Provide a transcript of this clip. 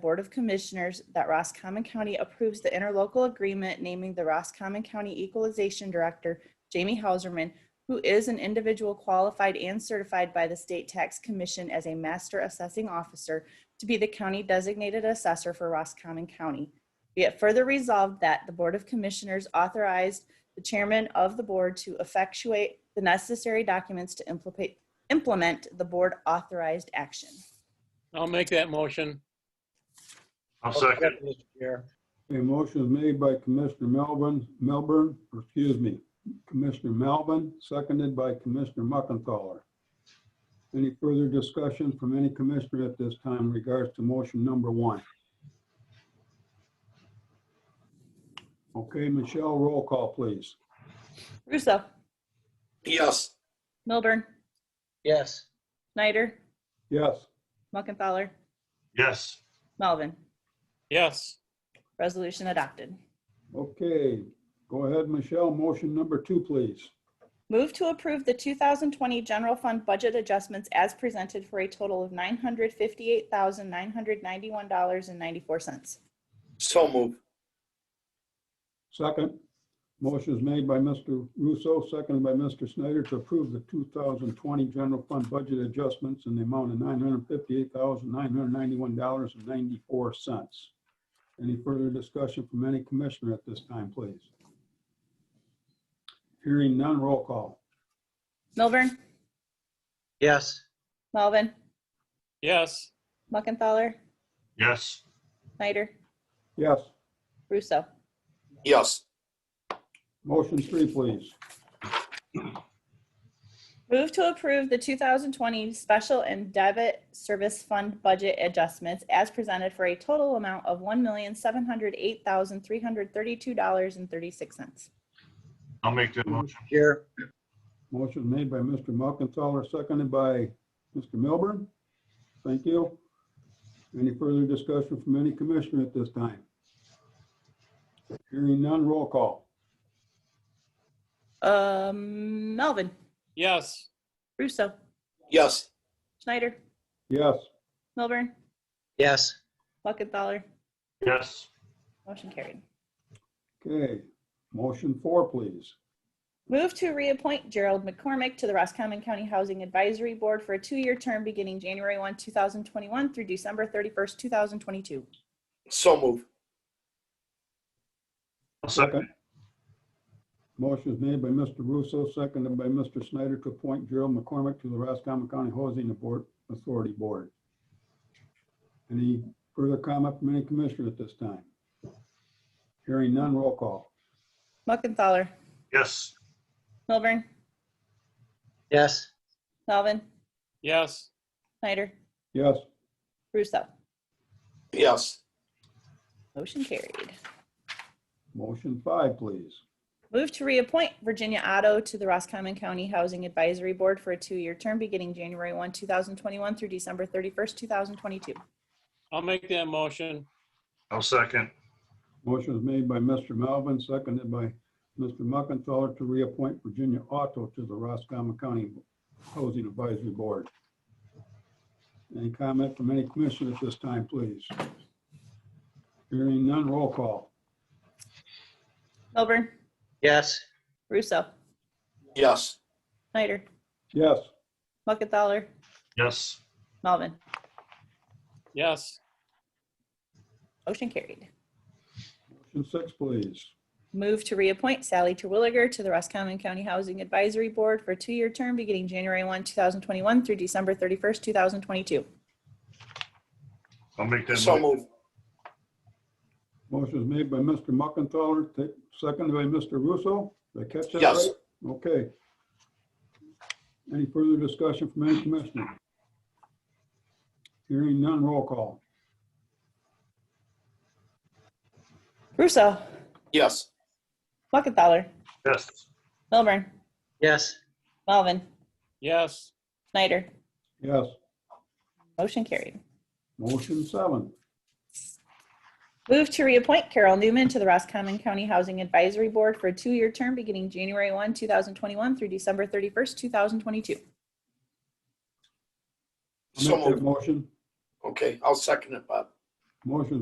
Board of Commissioners that Roscommon County approves the interlocal agreement naming the Roscommon County Equalization Director, Jamie Hauserman, who is an individual qualified and certified by the State Tax Commission as a Master Assessing Officer to be the county designated assessor for Roscommon County. Be it further resolved that the Board of Commissioners authorized the chairman of the board to effectuate the necessary documents to implement, implement the board authorized action. I'll make that motion. I'll second. Mr. Chair. A motion is made by Commissioner Melbourne, Melbourne, or excuse me, Commissioner Melvin, seconded by Commissioner Muckenthaler. Any further discussion from any commissioner at this time in regards to motion number one? Okay, Michelle, roll call, please. Russo, Yes. Milburn, Yes. Snyder, Yes, Muckenthaler, Yes, Melvin. Yes. Resolution adopted. okay. Go ahead, Michelle. Motion number two, please. Move to approve the 2020 general fund budget adjustments as presented for a total of $958,991.94. So move. Second, motion is made by Mr. Russo, seconded by Mr. Snyder to approve the 2020 general fund budget adjustments in the amount of $958,991.94. Any further discussion from any commissioner at this time, please? Hearing none, roll call. Milburn, Yes. Melvin, Yes. Muckenthaler, yes, Snyder, Yes, Russo. Yes. motion three, please. Move to approve the 2020 special and debit service fund budget adjustments as presented for a total amount of $1,708,332.36. I'll make that motion. Here. Motion made by Mr. Muckenthaler, seconded by Mr. Milburn. Thank you. Any further discussion from any commissioner at this time? Hearing none, roll call. Um, Melvin, Yes. Russo, Yes. Schneider, Yes, Milburn, Yes. Muckenthaler, Yes, motion carried. okay. Motion four, please. Move to reappoint Gerald McCormick to the Roscommon County Housing Advisory Board for a two-year term beginning January 1, 2021 through December 31st, 2022. So move. I'll second. Motion is made by Mr. Russo, seconded by Mr. Snyder to appoint Gerald McCormick to the Roscommon County Housing Abort- Authority Board. Any further comment from any commissioner at this time? Hearing none, roll call. Muckenthaler, Yes, Milburn, Yes. Melvin, Yes. Snyder, Yes, Russo. Yes. Motion carried. motion five, please. Move to reappoint Virginia Otto to the Roscommon County Housing Advisory Board for a two-year term beginning January 1, 2021 through December 31st, 2022. I'll make that motion. I'll second. Motion is made by Mr. Melvin, seconded by Mr. Muckenthaler to reappoint Virginia Otto to the Roscommon County Housing Advisory Board. Any comment from any commissioner at this time, please? Hearing none, roll call. Milburn, Yes. Russo, Yes. Snyder, Yes, Muckenthaler, Yes, Melvin. Yes. Motion carried. motion six, please. Move to reappoint Sally Terwilliger to the Roscommon County Housing Advisory Board for a two-year term beginning January 1, 2021 through December 31st, 2022. I'll make that So motion. move. Motion is made by Mr. Muckenthaler, ta- seconded by Mr. Russo. Did I catch that right? Yes. Okay. Any further discussion from any commissioner? Hearing none, roll call. Russo, Yes. Muckenthaler, Yes, Milburn, Yes. Melvin, Yes. Snyder. Yes, Motion carried. motion seven. Move to reappoint Carol Newman to the Roscommon County Housing Advisory Board for a two-year term beginning January 1, 2021 through December 31st, 2022. I'll So make that move. motion. Okay, I'll second it, Bob. Motion